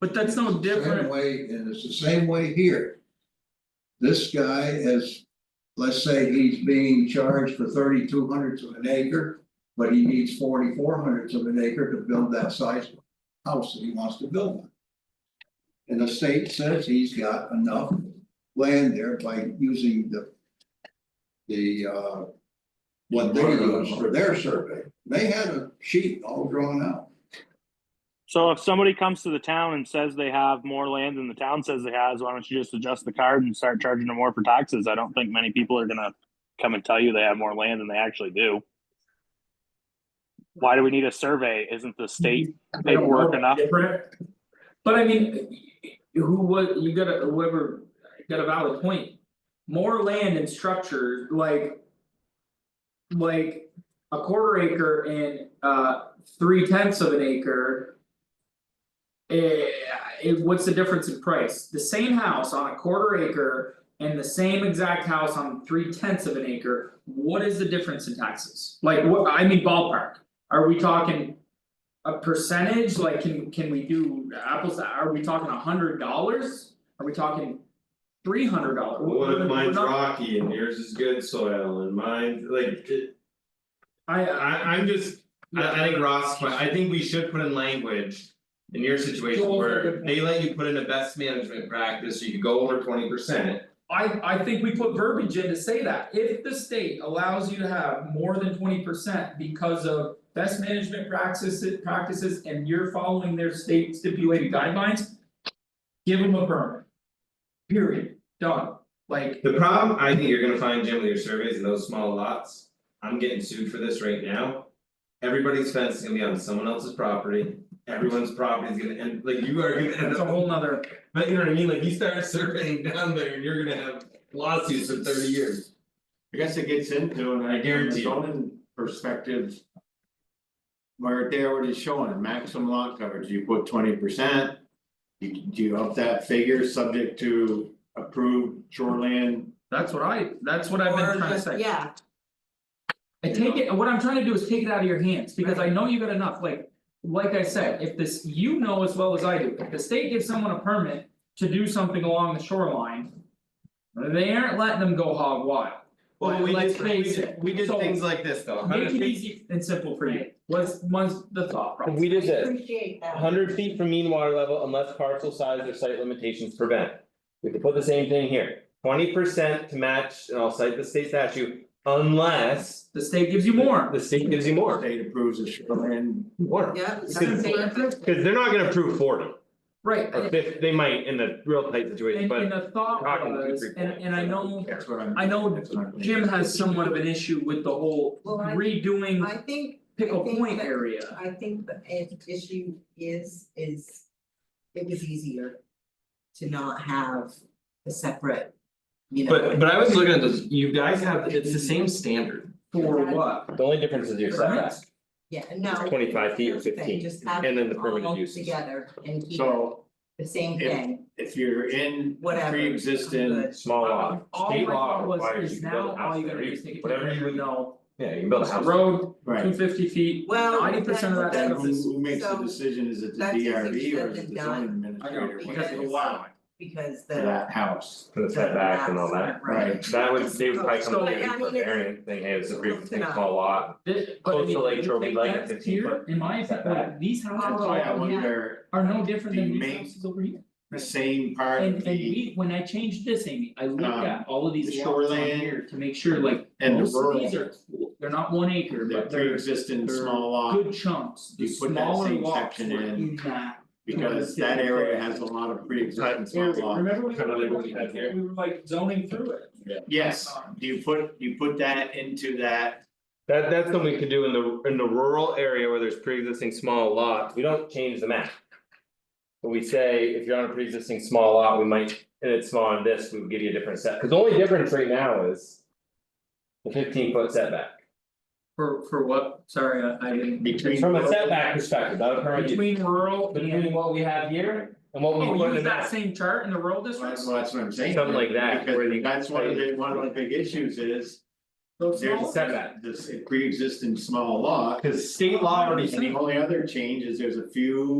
But that's no It's the same different. Way, and it's the same way here. This guy is, let's say he's being charged for thirty two hundredths of an acre, but he needs forty four hundredths of an acre to build that size house that he wants to build on. And the state says he's got enough land there by using the. The uh. What they use for their survey, they had a sheet all drawn out. So if somebody comes to the town and says they have more land than the town says it has, why don't you just adjust the card and start charging them more for taxes? I don't think many people are gonna come and tell you they have more land than they actually do. Why do we need a survey? Isn't the state I don't know paperwork enough? different. But I mean, who was, you gotta, whoever, got a valid point. More land and structure, like. Like a quarter acre and uh three tenths of an acre. Eh, it- what's the difference in price? The same house on a quarter acre and the same exact house on three tenths of an acre, what is the difference in taxes? Like what, I mean ballpark, are we talking? a percentage, like can can we do apples, to- are we talking a hundred dollars? Are we talking three hundred dollars? What if mine's rocky and yours is good soil and mine, like, it- I I. I I'm just, I I think Ross, but I think we should put in language. In your situation Joel's a good where point. they let you put in a best management practice, you could go over twenty percent. I I think we put verbiage in to say that, if the state allows you to have more than twenty percent because of best management practices practices and you're following their state stipulated guidelines. Give them a permit. Period, done, like, The problem, I think you're gonna find Jim with your surveys in those small lots, I'm getting sued for this right now. Everybody's fence is gonna be on someone else's property, everyone's property is gonna end, like you are gonna end that's a up whole nother, But you know what I mean, like you start surveying down there and you're gonna have lawsuits for thirty years. I guess it gets into, and I guarantee guarantee you. zoning perspective. Where they already showing maximum lot coverage, you put twenty percent. You you up that figure subject to approved shoreline. that's what I, that's what I've been trying to say. Yeah, I take it, what I'm trying to do is take it out of your hands, because I know you got enough, like, like I said, if this, you know as well as I do, if the state gives someone a permit. To do something along the shoreline. They aren't letting them go hog wild, Well, we let's did, we face did, it. we did So- things like this though, make hundred it feet, easy and simple for you, was was the thought process. We I did this, appreciate that. hundred feet from mean water level unless parcel size or site limitations prevent. We could put the same thing here, twenty percent to match, and I'll cite the state statute, unless The state gives you more, the state gives you more, State approves the shoreline. more. yeah. Cause Simple. that's dangerous. cause they're not gonna approve forty, right, or and fifty, they might in the real tight situation, and but the thought talking two, was, three and and I know. That's what I'm. I know that's what I'm- Jim has somewhat of an issue with the whole Well, I- redoing I think, Pickle think Point that- area. I think the i- issue is, is it was easier to not have a separate, you know. but but I was looking at this, you guys have, it's the same standard. for what? the only difference is your setback. Yeah, no. It's 25 feet or here's the thing, 15, Just have and then the them permitted all uses. Together and keep So the same if- thing, if you're in Whatever, pre-existing, good. Small Uh, lot, state law All my thought requires was you is to build now a all house you gotta there, do is you- take a whatever you picture, would, no, yeah, you can build a house. road, two right? fifty feet, well. ninety percent of that that's- stuff Who is who makes the so decision, is it the that's easier DRB or said is it than the zoning I administrator? know, because of the Because- wow. Because For the. that house, Put a the setback and all that, maps aren't Right. that would, they would probably So, come I in mean, for it's- variance thing, hey, it's a pretty Close enough. small lot. This, but I Close mean, to Lake you Shore, we take like that 15 here, foot in my opinion, like, these houses that's why I all over here wonder. are no different than the these main- houses over here. the same part And of and the, we, when I changed this, Amy, I looked Um, at all of these the lots on shoreline here to make sure like, and the most of these rural, are, they're not one acre, the but they're pre-existing they're small lot, good chunks, the You put that smaller same lots were section in. in that. because that area has a lot of pre-existing small lot. Remember Kind of like what we we had were, here. we were like zoning through it. Yes, do you put, you put that into that, That that's something we could do in the in the rural area where there's pre-existing small lots, we don't change the map. But we say if you're on a pre-existing small lot, we might, and it's small on this, we would give you a different set, cause the only difference right now is. The fifteen foot setback, For for what, sorry, I I didn't. Between- from a setback perspective, that would permit you, Between rural between and, what we have here and what we oh, put use in that that. same chart in the rural well, districts? that's what I'm saying. Something like that, where Because you- that's one of the, one of the big issues is, Those there's small- a setback, this pre-existing small lot. Cause state law already And the only other change is there's a few